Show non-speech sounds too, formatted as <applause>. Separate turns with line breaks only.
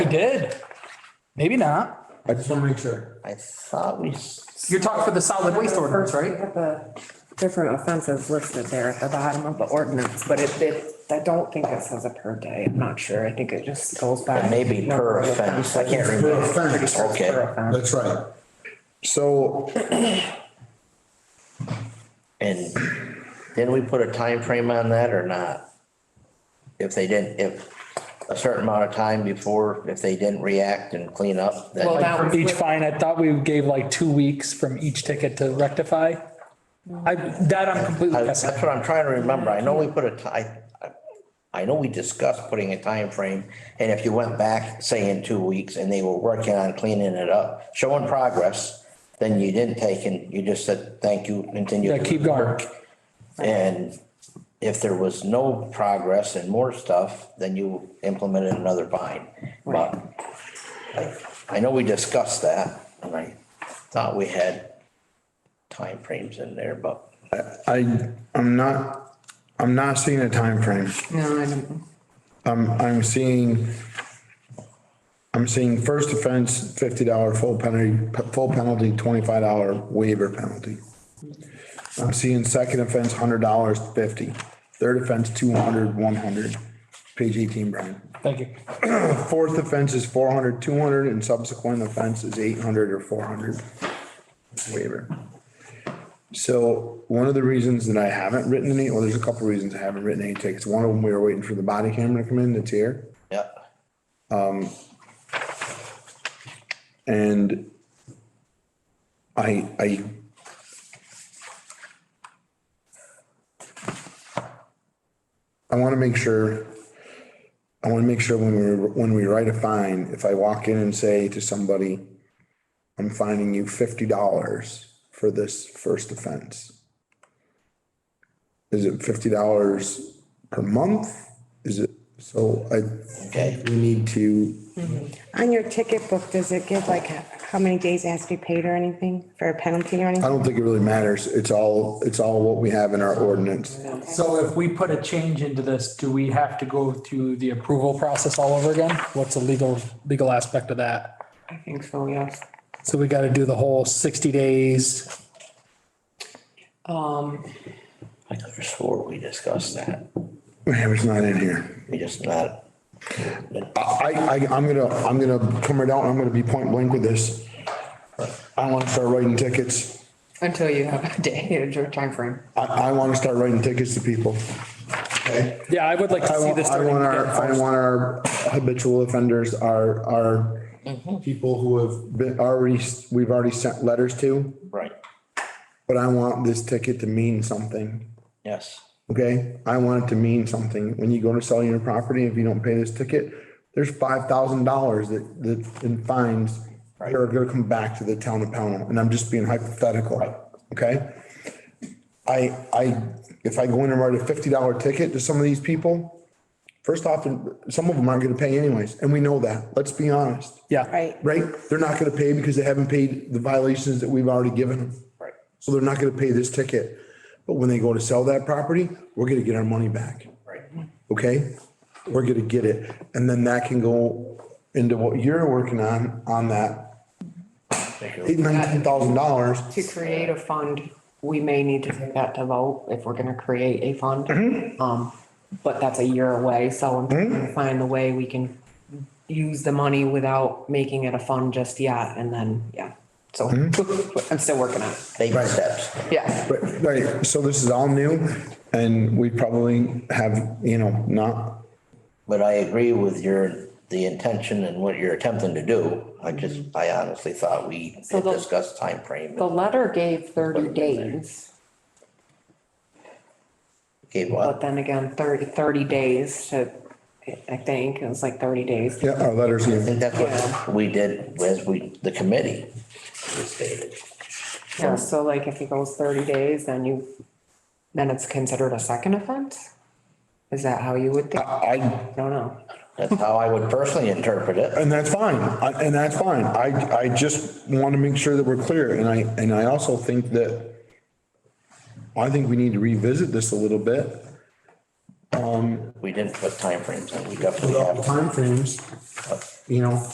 did. Maybe not.
I just want to make sure.
I thought we, s-
You're talking for the solid waste ordinance,
We
right?
have the different offenses listed there at the bottom of the ordinance, but it, it, I don't think it says a per day. I'm not sure. I think it just goes by.
maybe per
number of
offense, I can't
offenses.
remember.
Pretty sure it's per
Okay,
offense.
That's right. So
and didn't we put a time frame on that or not? If they didn't, if a certain amount of time before, if they didn't react and clean up,
Well,
then
that
From
was
each
with-
fine, I thought we gave like two weeks from each ticket to rectify. I, that I'm
I-
completely
that's
guessing.
what I'm trying to remember. I know we put a ti- I I know we discussed putting a time frame, and if you went back, say in two weeks, and they were working on cleaning it up, showing progress, then you didn't take and you just said, thank you, continue.
Yeah,
to
keep going.
And if there was no progress and more stuff, then you implemented another fine. But I, I know we discussed that, and I thought we had timeframes in there, but
I, I'm not, I'm not seeing a time frame.
No, I don't.
I'm, I'm seeing, I'm seeing first offense, fifty dollar full penalty, full penalty, twenty-five dollar waiver penalty. I'm seeing second offense, hundred dollars, fifty. Third offense, two hundred, one hundred. Page eighteen, Brian.
Thank you.
Fourth offense is 400, 200, and subsequent offense is eight hundred or four hundred waiver. So one of the reasons that I haven't written any, well, there's a couple reasons I haven't written any tickets. One of them, we were waiting for the body camera to come in, that's here.
yeah.
And I, I. I want to make sure, I want to make sure when we, when we write a fine, if I walk in and say to somebody, I'm fining you fifty dollars for this first offense. Is it fifty dollars per month? Is it, so I.
Okay.
We need to
On your ticket book, does it give like how many days it has to be paid or anything for a penalty or
I
anything?
don't think it really matters. It's all, it's all what we have in our ordinance.
So if we put a change into this, do we have to go through the approval process all over again? What's the legal, legal aspect of that?
I think so, yes.
So we gotta do the whole sixty days.
Um,
I could have swore we discussed that.
It was not in here.
We just not,
I, I, I'm gonna, I'm gonna come right out and I'm gonna be point blank with this. I wanna start writing tickets.
until you have a day, your timeframe.
I, I wanna start writing tickets to people. Okay?
Yeah, I would like
I
to see
want,
this.
I
starting
want our,
again
I
first.
want our habitual offenders, our, our
Mm-hmm.
people who have been, already, we've already sent letters to,
right,
but I want this ticket to mean something.
yes.
Okay, I want it to mean something. When you go to sell your property, if you don't pay this ticket, there's five thousand dollars that, that in fines that are gonna come back to the town of Pownell, and I'm just being hypothetical, okay? I, I, if I go in and write a fifty dollar ticket to some of these people, first off, some of them aren't gonna pay anyways, and we know that, let's be honest,
Yeah.
Right,
right? They're not gonna pay because they haven't paid the violations that we've already given them.
Right.
So they're not gonna pay this ticket. But when they go to sell that property, we're gonna get our money back.
Right.
Okay? We're gonna get it. And then that can go into what you're working on, on that eight, nineteen thousand dollars.
To create a fund, we may need to take that to vote if we're gonna create a fund. Um, but that's a year away, so I'm trying to find the way we can use the money without making it a fund just yet, and then, yeah. So <laughs> I'm still working on it,
Baby steps.
yeah.
Right, right. So this is all new and we probably have, you know, not,
But I agree with your, the intention and what you're attempting to do. I just, I honestly thought we
So
had
the-
discussed timeframe.
The letter gave thirty days,
Gave
but
what?
then again, 30 30 days to, I think, it was like thirty days.
yeah, our letters.
I think that's what we did as we, the committee stated.
Yeah, so like if it goes thirty days, then you, then it's considered a second offense? Is that how you would think?
I,
I don't know.
That's how I would personally interpret it.
And that's fine, I- and that's fine. I, I just want to make sure that we're clear, and I, and I also think that I think we need to revisit this a little bit
We didn't put timeframes, and we definitely
without
have.
timeframes, you know,